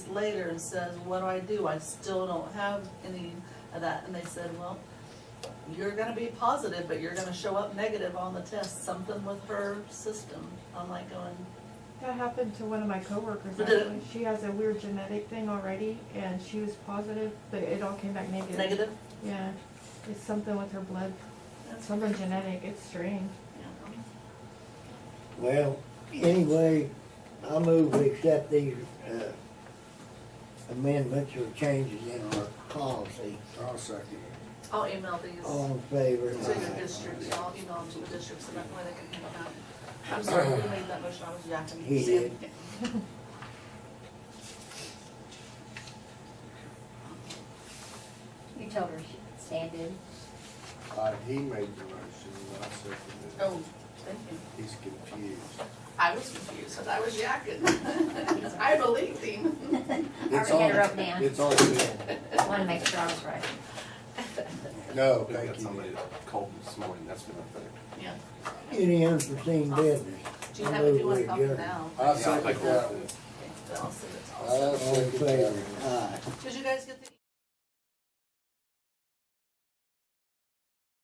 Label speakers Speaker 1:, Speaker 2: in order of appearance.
Speaker 1: later and says, what do I do? I still don't have any of that. And they said, well, you're gonna be positive, but you're gonna show up negative on the test, something with her system. I'm like going,
Speaker 2: That happened to one of my coworkers
Speaker 1: But did it-
Speaker 2: actually. She has a weird genetic thing already and she was positive, but it all came back negative.
Speaker 1: negative?
Speaker 2: Yeah, it's something with her blood,
Speaker 1: That's-
Speaker 2: something genetic, it's strange.
Speaker 1: yeah.
Speaker 3: Well, anyway, I move we accept these uh, amendments or changes in our policy.
Speaker 4: I'll second it.
Speaker 1: I'll email these
Speaker 3: All in favor?
Speaker 1: to your districts, I'll email them to the districts so that way they can handle that. I'm sorry, who made that motion? I was yakking.
Speaker 3: He did.
Speaker 5: You told her she could stand in.
Speaker 4: Uh, he made the motion, and I seconded it.
Speaker 1: Oh, thank you.
Speaker 4: He's confused.
Speaker 1: I was confused, 'cause I was yakking. I believed him.
Speaker 5: I already had
Speaker 4: It's on.
Speaker 5: it wrote down.
Speaker 4: It's on film.
Speaker 5: I wanted to make sure I was right.
Speaker 4: No,
Speaker 6: We've got
Speaker 4: thank you.
Speaker 6: somebody that called this morning, that's been up there.
Speaker 1: Yeah.
Speaker 3: Any unforeseen business?
Speaker 1: Do you
Speaker 3: I
Speaker 1: have, if
Speaker 3: move
Speaker 1: you want
Speaker 3: we
Speaker 1: to copy
Speaker 3: adjourn.
Speaker 1: now?
Speaker 4: I
Speaker 6: Yeah, I
Speaker 4: second
Speaker 6: think we'll-
Speaker 4: that one.
Speaker 1: Okay, then I'll send it to all.
Speaker 4: I
Speaker 3: All in
Speaker 4: second
Speaker 3: favor?
Speaker 4: that one.
Speaker 3: Aye.
Speaker 1: Did you guys get the?